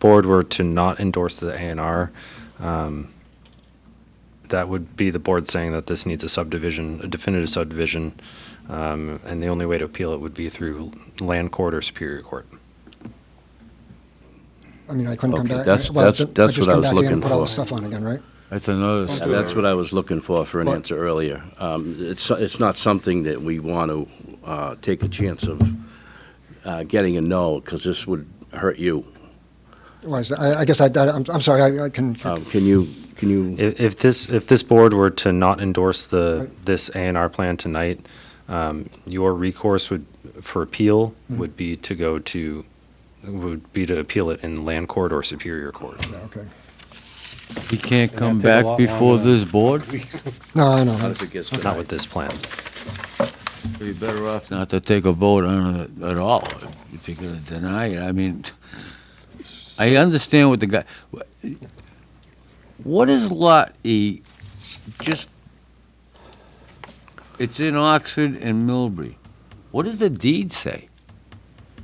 board were to not endorse the A and R, um, that would be the board saying that this needs a subdivision, a definitive subdivision, um, and the only way to appeal it would be through land court or superior court. I mean, I couldn't come Okay, back. that's- well, that's- just- that's just what I come was back in and looking Put all for. the stuff on again, right? That's another, That's what I was looking for, for an But- answer earlier. Um, It's, it's not something that we want to uh, take a chance of uh, getting a no, because this would hurt you. Why is that? I, I guess I, I- I'm, I'm sorry, I, I can, Um, Can you, can you, If, if this, if this board were to not endorse the, this A and R plan tonight, um, your recourse would, for appeal, would be to go to, would be to appeal it in land court or superior court. yeah, okay. he can't come take a back lot before longer. this board? No, I know. if it gets Not denied? with this plan. You're better off not to take a vote on it at all, if you're gonna deny it, I mean, I understand what the guy, what is Lot E, just, it's in Oxford and Milbury, what does the deed say?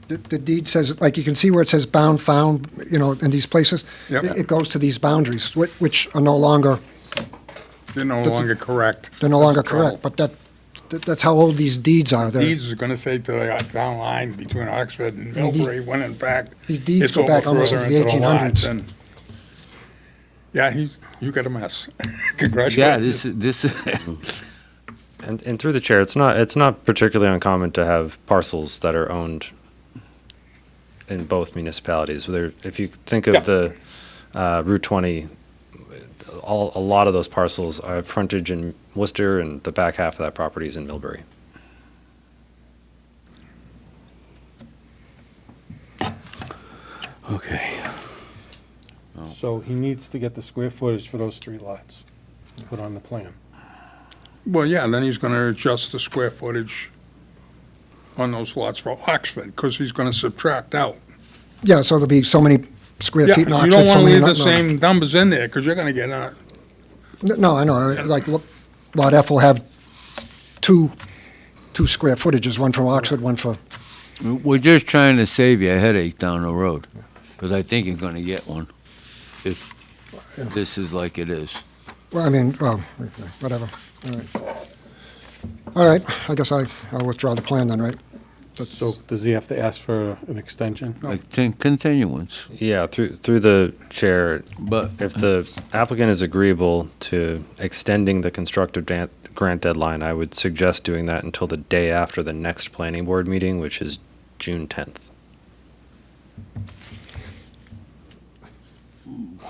The the deed says, like, you can see where it says bound, found, you know, in these places. Yep. It it goes to these boundaries, whi- which are no longer, They're no longer correct. they're no That's longer the trouble. correct, but that, that- that's how old these deeds are. They're- Deeds is gonna say to the town line between Oxford and Yeah, these- Milbury, when in fact. these deeds it's go over back almost further into the into lot 1800s. than- Yeah, he's, you got a mess. Yeah, Congratulations. this, is this, is- And, and through the chair, it's not, it's not particularly uncommon to have parcels that are owned in both municipalities. There, if you think Yeah. of the uh, Route 20, all, a lot of those parcels are frontage in Worcester, and the back half of that property is in Millbury. Okay. So he needs to get the square footage for those three lots, put on the plan. Well, yeah, then he's gonna adjust the square footage on those lots for Oxford, because he's gonna subtract out. Yeah, so there'll be so many square Yeah, feet in You don't Oxford, so many wanna leave in the Rutland. same numbers in there, because you're gonna get, uh, N- No, I know, I- like, look, Lot F will have two, two square footages, one from Oxford, one for, we're just trying to save you a headache down the road, because I think you're gonna get one, if this is like it is. well, I mean, well, whatever, all right. All right, I guess I, I'll withdraw the plan then, right? That's- So does he have to ask for an extension? Like, ten- continuance, Yeah, through, through the chair, but. if the applicant is agreeable to extending the constructive dan- grant deadline, I would suggest doing that until the day after the next planning board meeting, which is June 10th.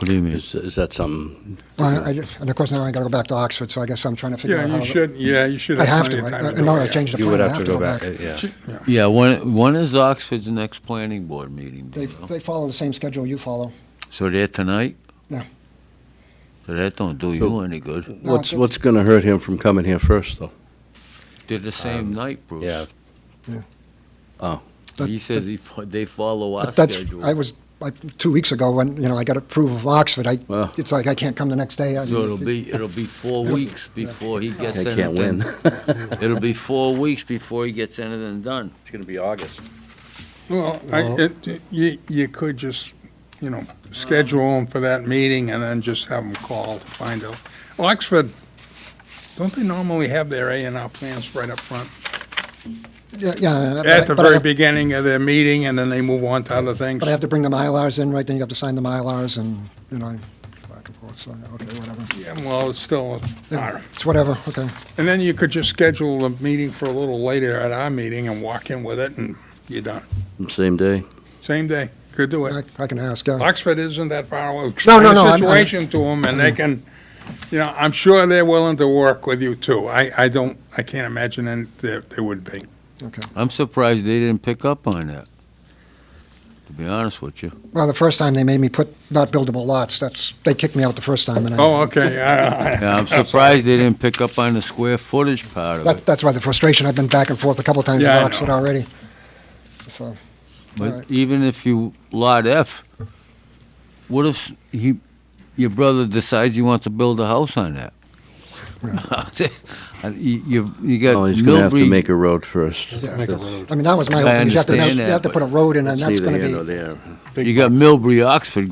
What do you mean? Is, is that something? Well, I, I- and of course, now I gotta go back to Oxford, so I guess I'm trying to figure yeah, out how. you should, yeah, you should I have have plenty to, right? of time to I- do No, it, I yeah. changed the You plan, would I have to go back. uh, Yeah. She- yeah. Yeah, when, when is Oxford's next planning board meeting? do They, you know? they follow the same schedule you follow. So they're tonight? Yeah. So that don't do you any good. No, What's, that- what's going to hurt him from coming here first, though? They're the same night, Bruce. Yeah, That- He says he, fo- they follow our But that's, schedule. I was, like, two weeks ago, when, you know, I got approval of Oxford, I, Well. it's like, I can't come the next day. I- So it'll be, it'll be four weeks before he gets They anything. can't win. It'll be four weeks before he gets anything done. It's going to be August. Well, I, it, you, you could just, you know, schedule Uh-huh. them for that meeting and then just have them call to find out. Oxford, don't they normally have their A and R plans right up front? Yeah, yeah. but I- At the but I very have- beginning of their meeting and then they move on to other things? But I have to bring the Mylars in, right, then you have to sign the Mylars and, you know, back and forth, so, okay, whatever. Yeah, well, it's still, Yeah, It's whatever, okay. and then you could just schedule a meeting for a little later at our meeting and walk in with it and you're done. Same day. Same day, could do I it. I can ask, yeah. Oxford isn't that far away. No, Explain no, no, the I'm- I'm- situation to them, and they can, you know, I'm sure they're willing to work with you, too. I, I don't, I can't imagine any- they, they would be. Okay. I'm surprised they didn't pick up on that, to be honest with you. Well, the first time they made me put not buildable lots, that's, they kicked me out the first time, and I, Oh, okay, I- I- Yeah, I'm surprised they didn't pick up on the square footage part of that, it. that's why the frustration, I've been back and forth a couple times with Yeah, I know. Oxford already. So, But Right. even if you lot F, what if he, your brother decides he wants to build a house on that? Uh, You, you- you got Oh, he's gonna have to Millbury- make a road first. Just make a road. I mean, that was my I whole thing, is you have to, understand you that, have to put but a road in, and It's that's neither gonna here be. nor there. you got Millbury, Oxford